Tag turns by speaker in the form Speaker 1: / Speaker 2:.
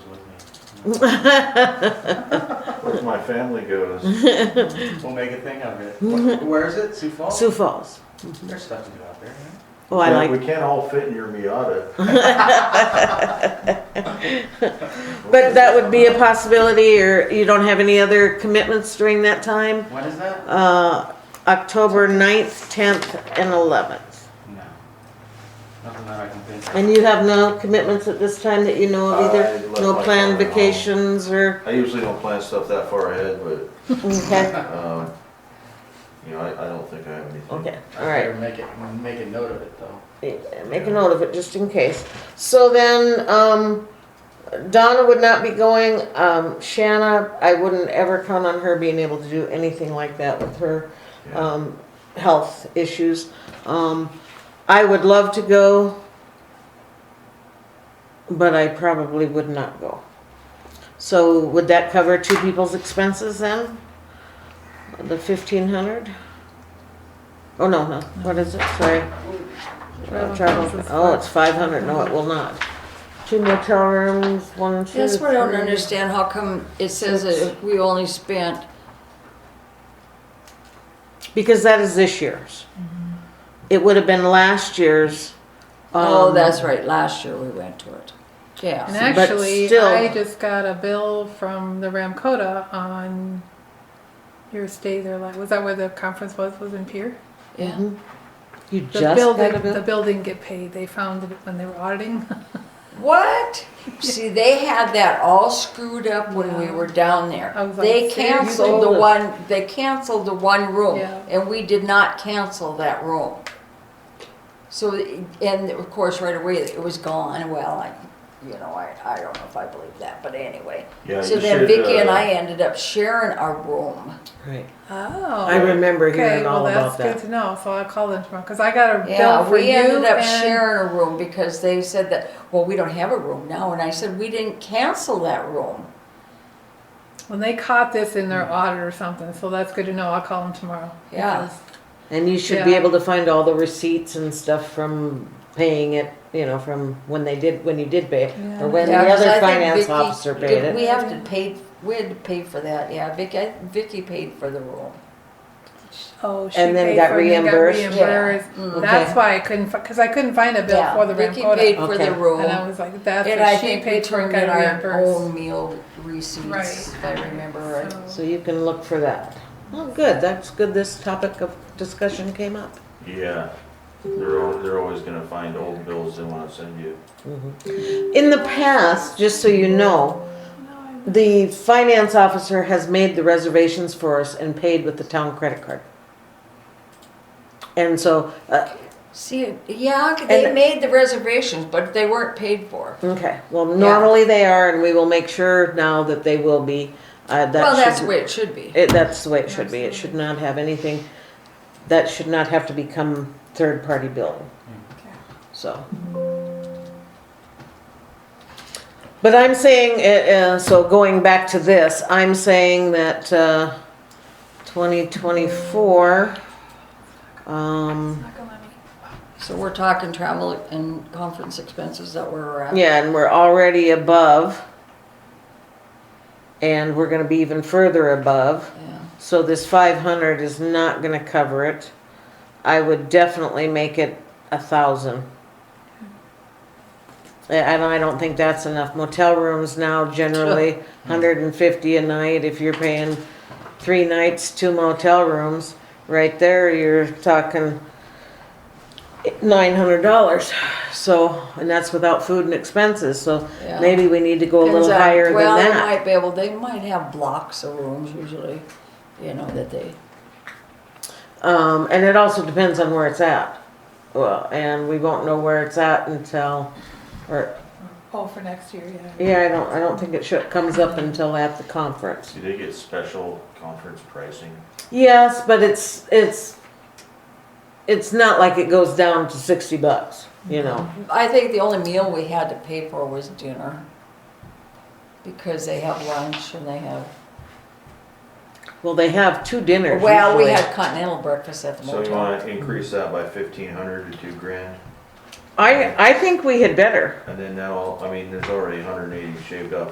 Speaker 1: Where's my family goes.
Speaker 2: We'll make a thing of it. Wh- Where is it? Sioux Falls?
Speaker 3: Sioux Falls.
Speaker 2: There's stuff to do out there. right?
Speaker 3: Oh, I
Speaker 1: Yeah,
Speaker 3: like
Speaker 1: We can't all fit in your Miata.
Speaker 3: But that would be a possibility, or you don't have any other commitments during that time?
Speaker 2: What is that?
Speaker 3: Uh, October 9th, tenth, and eleventh.
Speaker 2: No. Nothing that I can think of.
Speaker 3: And you have no commitments at this time that you know of
Speaker 1: I
Speaker 3: either?
Speaker 1: left
Speaker 3: No
Speaker 1: my
Speaker 3: planned
Speaker 1: car at home.
Speaker 3: vacations or,
Speaker 1: I usually don't plan stuff that far ahead, but,
Speaker 3: okay,
Speaker 1: um, you know, I, I don't think I have anything.
Speaker 3: okay,
Speaker 2: I
Speaker 3: all right.
Speaker 2: figure Make it, make a note of it though.
Speaker 3: Yeah, Make a note of it, just in case. So then, um, Donna would not be going, um, Shanna, I wouldn't ever count on her being able to do anything like that with her,
Speaker 1: Yeah.
Speaker 3: um, health issues. Um, I would love to go, but I probably would not go. So would that cover two people's expenses then? The fifteen hundred? Oh, no, no, what is it, sorry? Uh, Travel, oh, it's five hundred, no, it will not. Two motel rooms, one, two,
Speaker 4: That's what I don't
Speaker 3: three.
Speaker 4: understand, how come it says that we only spent,
Speaker 3: Because that is this year's.
Speaker 4: Mm-hmm.
Speaker 3: It would have been last year's.
Speaker 4: oh,
Speaker 3: um,
Speaker 4: that's right, last year we went to it.
Speaker 5: And
Speaker 4: Yeah,
Speaker 3: but
Speaker 5: actually,
Speaker 3: still-
Speaker 5: I just got a bill from the Ramcota on your stay there. Like, was that where the conference was? Was in Pier?
Speaker 4: yeah.
Speaker 3: You
Speaker 5: The
Speaker 3: just
Speaker 5: building,
Speaker 3: got a
Speaker 5: the
Speaker 3: bill?
Speaker 5: building get paid. They found it when they were auditing.
Speaker 4: What? See, they had that all screwed up when we were down there.
Speaker 5: I was like,
Speaker 4: They
Speaker 5: seriously?
Speaker 4: canceled the one, they canceled the one room,
Speaker 5: Yeah.
Speaker 4: and we did not cancel that room. So, and of course, right away, it was gone, well, I, you know, I, I don't know if I believe that, but anyway.
Speaker 1: Yeah,
Speaker 4: So
Speaker 1: you
Speaker 4: then
Speaker 1: should,
Speaker 4: Vicky and
Speaker 1: uh,
Speaker 4: I ended up sharing our room.
Speaker 3: Right.
Speaker 5: Oh.
Speaker 3: I remember
Speaker 5: okay.
Speaker 3: hearing
Speaker 5: Well,
Speaker 3: all
Speaker 5: that's
Speaker 3: about
Speaker 5: good
Speaker 3: that.
Speaker 5: to know. So I'll call them tomorrow because I got a bill
Speaker 4: Yeah,
Speaker 5: for
Speaker 4: we
Speaker 5: you
Speaker 4: ended up
Speaker 5: and
Speaker 4: sharing a room because they said that, well, we don't have a room now, and I said, we didn't cancel that room.
Speaker 5: when they caught this in their audit or something. So that's good to know. I'll call them tomorrow.
Speaker 4: Yeah.
Speaker 5: because-
Speaker 3: And you should be
Speaker 5: Yeah.
Speaker 3: able to find all the receipts and stuff from paying it, you know, from when they did, when you did pay it,
Speaker 5: Yeah.
Speaker 3: or when the
Speaker 4: Yeah, 'cause I
Speaker 3: other
Speaker 4: think
Speaker 3: finance
Speaker 4: Vicky-
Speaker 3: officer
Speaker 4: did-
Speaker 3: paid it.
Speaker 4: We have to pay, we had to pay for that, yeah, Vicky, I- Vicky paid for the room.
Speaker 5: Oh, she
Speaker 3: And then
Speaker 5: paid
Speaker 3: got
Speaker 5: for it and
Speaker 3: reimbursed?
Speaker 5: Got
Speaker 4: Yeah.
Speaker 5: reimbursed.
Speaker 4: Mm.
Speaker 5: That's
Speaker 3: Okay.
Speaker 5: why I couldn't because I couldn't find a bill
Speaker 4: Yeah,
Speaker 5: for the
Speaker 4: Vicky
Speaker 5: Ramcota.
Speaker 4: paid for the
Speaker 3: Okay.
Speaker 4: room.
Speaker 5: And I was like, that's
Speaker 4: And
Speaker 5: what
Speaker 4: I
Speaker 5: she
Speaker 4: think we
Speaker 5: paid for and
Speaker 4: turned
Speaker 5: got
Speaker 4: in our
Speaker 5: reimbursed.
Speaker 4: own meal receipts, if I remember right.
Speaker 5: So-
Speaker 3: So you can look for that. Well, good, that's good this topic of discussion came up.
Speaker 1: Yeah, they're, al- they're always gonna find old bills they wanna send you.
Speaker 3: In the past, just so you know, the finance officer has made the reservations for us and paid with the town credit card. And so, uh,
Speaker 4: See, yeah, they
Speaker 3: And-
Speaker 4: made the reservations, but they weren't paid for.
Speaker 3: okay, well, normally they are, and we will make sure now that they will be. Uh, that
Speaker 4: Well, that's
Speaker 3: should-
Speaker 4: the way it should be.
Speaker 3: It, that's the way it should be. It should not have anything, that should not have to become third-party billing. So. But I'm saying, uh, uh, so going back to this, I'm saying that, uh, twenty twenty-four, um,
Speaker 4: So we're talking travel and conference expenses that we're at.
Speaker 3: yeah, and we're already above. And we're gonna be even further above.
Speaker 4: Yeah.
Speaker 3: So this five hundred is not gonna cover it. I would definitely make it a thousand. And I don't think that's enough. Motel rooms now generally hundred and fifty a night if you're paying three nights, two motel rooms. Right there, you're talking nine hundred dollars. So, and that's without food and expenses, so
Speaker 4: Yeah.
Speaker 3: maybe we need to go a little
Speaker 4: Depends on-
Speaker 3: higher than
Speaker 4: uh, Well, they
Speaker 3: that.
Speaker 4: might be able, they might have blocks of rooms usually, you know, that they,
Speaker 3: Um, and it also depends on where it's at. Well, and we won't know where it's at until, or,
Speaker 5: Oh, for next year, yeah.
Speaker 3: yeah, I don't, I don't think it should, comes up until at the conference.
Speaker 1: Do they get special conference pricing?
Speaker 3: Yes, but it's, it's, it's not like it goes down to sixty bucks, you know?
Speaker 4: I think the only meal we had to pay for was dinner. Because they have lunch and they have,
Speaker 3: Well, they have two dinners
Speaker 4: well, we
Speaker 3: usually.
Speaker 4: had continental breakfast at the
Speaker 1: So you
Speaker 4: motel.
Speaker 1: wanna increase that by fifteen hundred to two grand?
Speaker 3: I, I think we had better.
Speaker 1: And then that'll, I mean, there's already hundred and eighty shaved off